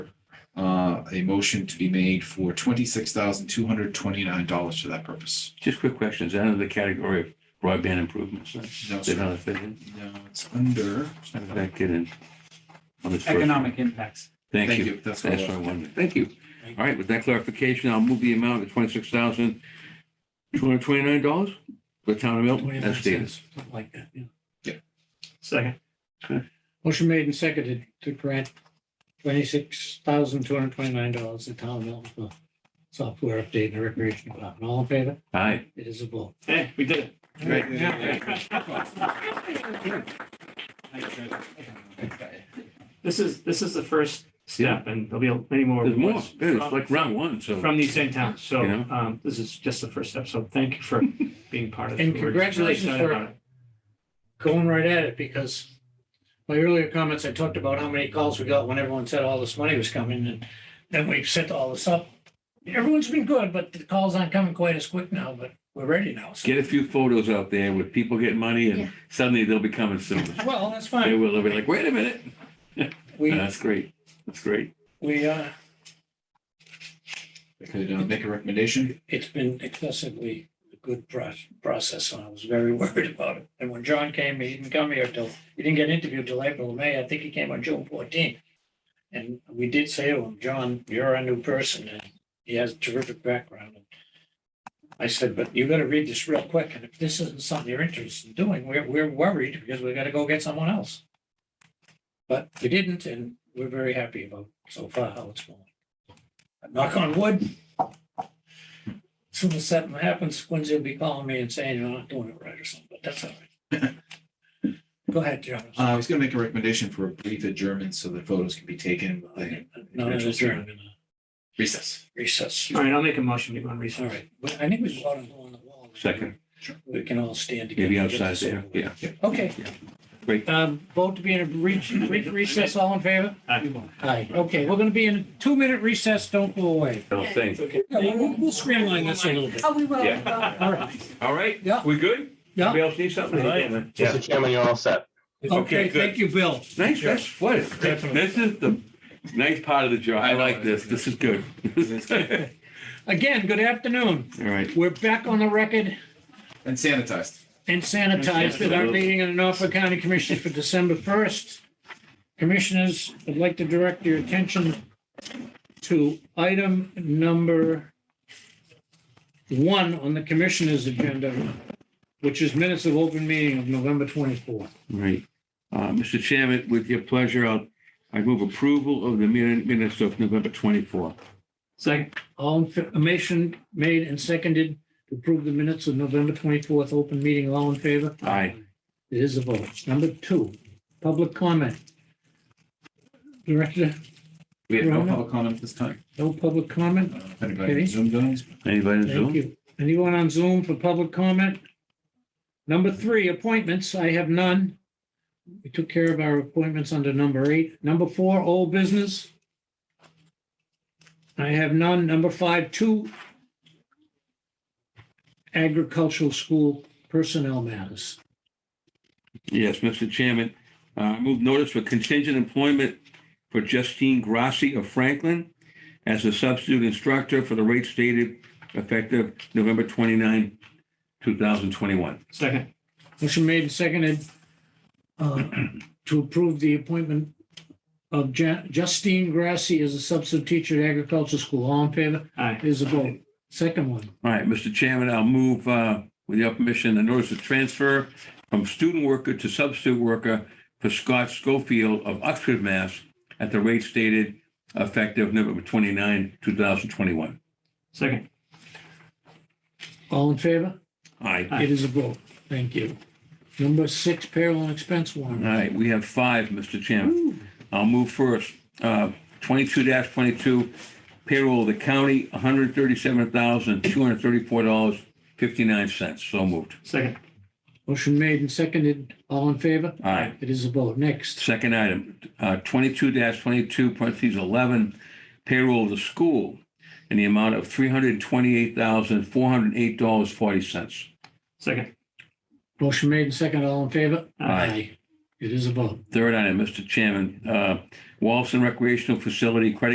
uh, a motion to be made for twenty-six thousand two hundred twenty-nine dollars for that purpose. Just quick questions. Under the category of broadband improvements, right? No, They're sir. not affiliated. No, it's under, How did that get in? on this first one? Economic impacts. Thank thank you. you, that's what That's it what I was. wanted. Thank you. All right, with that clarification, I'll move the amount to twenty-six thousand two hundred twenty-nine dollars for the town of Milton as stated. Something like that, yeah. Second. Motion made and seconded to grant twenty-six thousand two hundred twenty-nine dollars to town of Milton for software update in the recreation department. All in favor? Aye. It is a vote. Hey, we did it. Great. This is, this is the first step and there'll be many more. There's more. awards There's from- like round one, so From these same towns. So You know? um, this is just the first step. So thank you for being part of it. And We're really congratulations excited for- about it. Going right at it because my earlier comments, I talked about how many calls we got when everyone said all this money was coming and then we set all this up. Everyone's been good, but the calls aren't coming quite as quick now, but we're ready now. So, get a few photos out there with people getting money Yeah. and suddenly they'll be coming soon. well, that's They fine. will, they'll be like, wait a minute. We, That's great. That's great. we, uh, I Could uh, make a recommendation? it's been excessively a good pro- process, and I was very worried about it. And when John came, he didn't come here till, he didn't get interviewed till April, or May, I think he came on June fourteenth. And we did say to him, John, you're a new person, and he has a terrific background. And I said, but you gotta read this real quick, and if this isn't something you're interested in doing, we're, we're worried because we gotta go get someone else. But we didn't, and we're very happy about so far how it's going. Knock on wood, soon as something happens, Quincy will be calling me and saying, you're not doing it right or something, but that's all right. Go ahead, John. Uh, I was gonna make a recommendation for a brief adjournment so that photos can be taken. with the No, no, that's right. I'm gonna Recess. Recess. All right, I'll make a motion to go on All recess. right. Well, I think we should go out and go on the wall. Second, We can all stand together. maybe and get outside this there. over with. Yeah. Okay. Great. Um, vote to be in a brief brief recess, all in favor? Aye. Aye. Okay, we're gonna be in a two-minute recess. Don't go away. Don't think. Okay. Yeah, We'll we'll streamline this a little bit. Oh, we will. Yeah. we will. All right. All right? Yeah. We good? Yeah. Anybody else need something? Yeah. Mr. Chairman, you're all set. Okay, good. thank you, Bill. Nice, that's what, this is the nice part of the job. I like this. This is good. All Again, good afternoon. right. We're back on the record. And sanitized. and sanitized with our meeting of the Norfolk County Commissioners for December first. Commissioners, I'd like to direct your attention to item number one on the commissioners' agenda, which is minutes of open meeting of November twenty-fourth. Right. Uh, Mr. Chairman, with your pleasure, I'll, I move approval of the min- minutes of November 24th. Second, All information made and seconded to approve the minutes of November twenty-fourth, open meeting, all in favor? Aye. It is a vote. Number two, public comment. Director, We have no Right. public comment this time. no public comment? I don't know If anybody Okay. zoomed in. Anybody in Thank Zoom? you. Anyone on Zoom for public comment? Number three, appointments. I have none. We took care of our appointments under number eight. Number four, old business. I have none. Number five, two agricultural school personnel matters. Yes, Mr. Chairman, uh, I move notice for contingent employment for Justine Grassi of Franklin as a substitute instructor for the rate stated effective November 29, 2021. second, Motion made and seconded uh, to approve the appointment of Ja- Justine Grassi as a substitute teacher at agricultural school. All in favor? aye, Is a vote. Second one. All right, Mr. Chairman, I'll move uh, with your permission, the notice of transfer from student worker to substitute worker for Scott Schofield of Oxford, Mass. at the rate stated effective November 29, 2021. second, All in favor? Aye. Aye. It is a vote. Thank you. Number six, payroll and expense All warrant. right, we have five, Mr. Chairman. I'll move first. Uh, Twenty-two twenty-two payroll of the county, one hundred thirty-seven thousand, two hundred thirty-four dollars, fifty-nine cents. So moved. second, Motion made and seconded. All in favor? Aye. It is a vote. Next, Second item, uh, twenty-two twenty-two, parentheses eleven, payroll of the school in the amount of three hundred twenty-eight thousand, four hundred eight dollars, forty cents. second, motion made and seconded. All in favor? Aye. It is a vote. Third item, Mr. Chairman, uh, Wallaston Recreational Facility Credit